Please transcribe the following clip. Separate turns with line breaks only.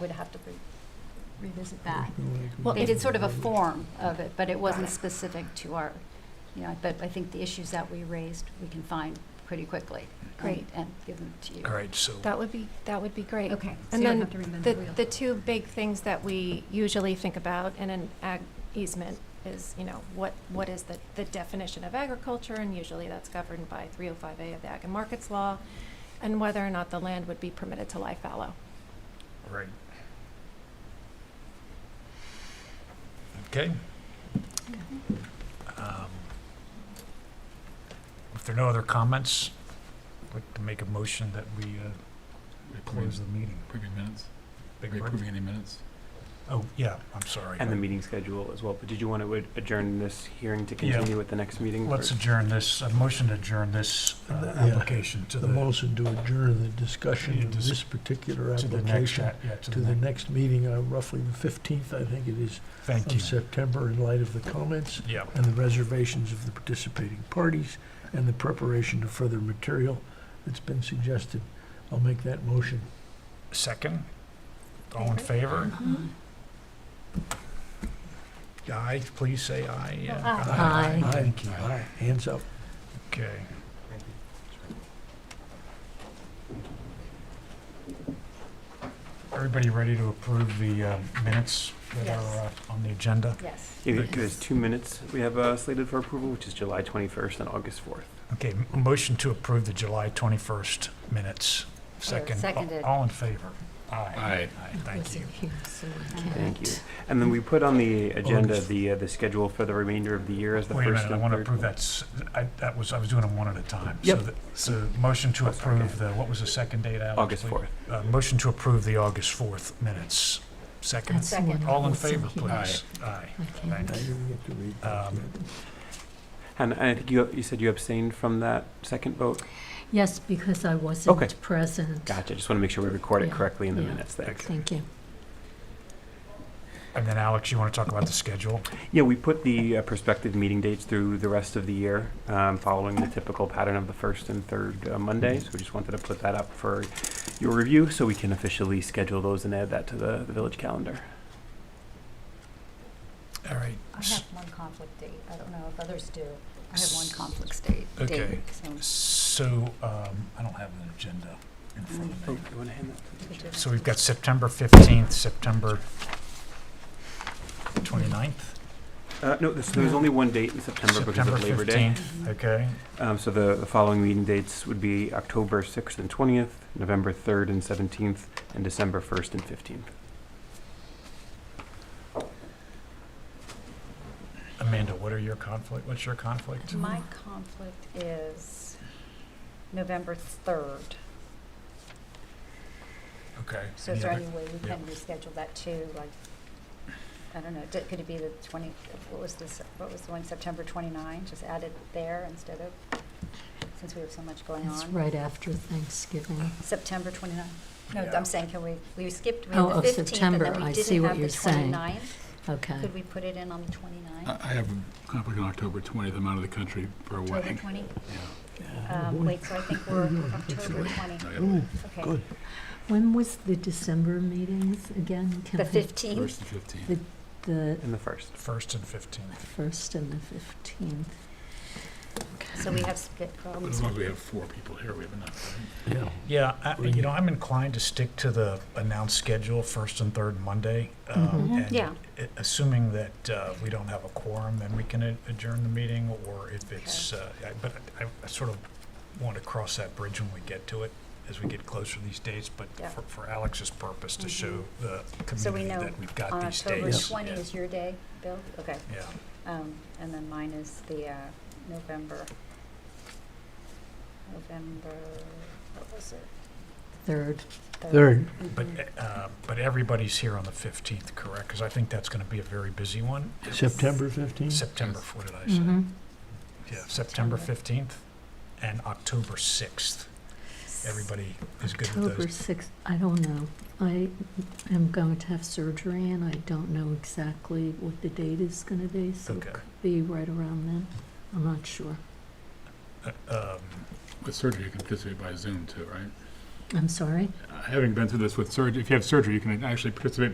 would have to re- revisit that.
Well,
They
if-
did sort of a form of it, but it wasn't specific to our, you know, but I think the issues that we raised, we can find pretty quickly. and-
Great.
And give them to you.
All right, so,
That would be, that would be great.
Okay. so
And
you don't
then
have to reinvent
The,
wheel.
the two big things that we usually think about in an ag easement is, you know, what, what is the, the definition of agriculture? And usually that's governed by 305A of the Ag and Markets Law, and whether or not the land would be permitted to lie fallow.
right. Okay. Um, If there are no other comments, I'd like to make a motion that we uh, close the meeting.
Approving minutes?
Big
Are you
pardon?
approving any minutes?
Oh, yeah, I'm sorry.
And the meeting schedule as well, but did you want to adjourn this hearing to
Yeah.
continue with the next meeting?
Uh, Let's
or-
adjourn this, a motion to adjourn this uh,
Uh, yeah.
application to
The
the,
motion to adjourn the discussion
Yeah,
of
dis-
this particular
to the next,
application
a- yeah, to
to the
the
next
next.
meeting, uh, roughly the 15th, I think it is,
Thank
of
you.
September, in light of the comments
Yeah,
and the reservations of the participating parties and the preparation of further material that's been suggested. I'll make that motion.
second? All in favor?
Mhm.
Aye, please say aye.
Oh,
yeah.
Aye.
Aye.
Thank you.
Aye. Hands up.
Okay. Everybody ready to approve the uh, minutes that
Yes.
are uh, on the agenda?
Yes.
Yeah, There's two minutes we have uh, slated for approval, which is July 21st and August 4th.
Okay, m- motion to approve the July 21st minutes. Second. a-
seconded.
All in favor?
Aye.
Aye, thank you.
Thank you. And then we put on the agenda
August.
the, uh, the schedule for the remainder of the year as the
Wait
first
a
and
minute, I want to
third
approve that, s- I, that was, I was doing them one at a time. So
Yep.
the- So, motion to
That's okay.
approve the, what was the second date, Alex?
August
please?
4th.
Uh, motion to approve the August 4th minutes. Second.
Second.
All in favor, please? Aye.
I
Thank you.
didn't get to read that
Um,
yet.
And and I think you, you said you abstained from that second vote?
Yes, because I
Okay.
wasn't present.
Gotcha, just want to make sure we record it
Yeah,
correctly in the
yeah.
minutes there.
Okay.
Thank you.
And then Alex, you want to talk about the schedule?
Yeah, we put the uh, prospective meeting dates through the rest of the year, um, following the typical pattern of the first and third uh, Mondays. We just wanted to put that up for your review, so we can officially schedule those and add that to the, the village calendar.
All right.
I have one conflict date. I don't know if others do. I have one conflict state. date,
Okay.
so-
So, um, I don't have an agenda in front of
Oh,
me.
you want to hand that? to the chair?
So we've got September 15th, September 29th?
Uh, no, there's, there's only one date in September because of Labor Day.
Mhm.
Okay,
Um, so the, the following meeting dates would be October sixth and twentieth, November third and seventeenth, and December first and fifteenth.
Amanda, what are your conflict, what's your conflict?
My conflict is November 3rd.
Okay.
So is there
Any
any way we
yeah.
can reschedule that too, like, I don't know, d- could it be the twenty, what was this, what was the one, September twenty-nine, just add it there instead of, since we have so much going
It's
on?
right after Thanksgiving.
September twenty-nine, no,
Yeah.
I'm saying, can we, we skipped, we
Oh,
had
oh,
the fifteenth, and
September.
then we
I see
didn't
what
have the
you're saying.
twenty-ninth,
Okay.
could we put it in on the
I,
Uh,
twenty-ninth?
I have a conflict on October twentieth. I'm out of the country for a
October
wedding.
twenty,
Yeah.
Oh,
um,
boy.
wait, so I think we're
no, that's
October twenty,
No, I gotta
Ooh,
wait.
okay,
good.
When was the December meetings again? Can
the
I-
fifteenth,
First and fifteenth.
The
And the first.
First and 15th.
first and the 15th.
so we have um, split
But
problems.
as long as we have four people here, we have enough. right?
Yeah.
Yeah, I-
Bring
you
it.
know, I'm inclined to stick to the announced schedule, first and third Monday. um,
Mhm.
and
Mm-hmm. Yeah.
a- Assuming that uh, we don't have a quorum, then we can a- adjourn the meeting, or if it's, uh, I- but I- I sort of want to cross that bridge when we get to it, as we get closer to these dates, but
Yeah.
for- for Alex's purpose, to
Mhm.
show the
So we
community
know
that we've got
On
these dates.
October
dates,
twenty
Yeah.
is your day, Bill, okay.
Yeah,
Um, and then mine is the, uh, November, November, what was it?
Third,
Third.
but,
Mhm.
uh, but everybody's here on the 15th, correct? Because I think that's going to be a very busy one.
Mm-hmm.
September 15th?
September, what did I say?
hmm
Yeah, September
September.
15th and October 6th. Everybody is good with
October
those.
6th, I don't know. I am going to have surgery and I don't know exactly what the date is going to be, so it
Okay.
could be right around then. I'm not sure.
Uh, um,
With surgery, you can participate by Zoom too, right?
I'm sorry?
Having been through this with surgery, if you have surgery, you can actually participate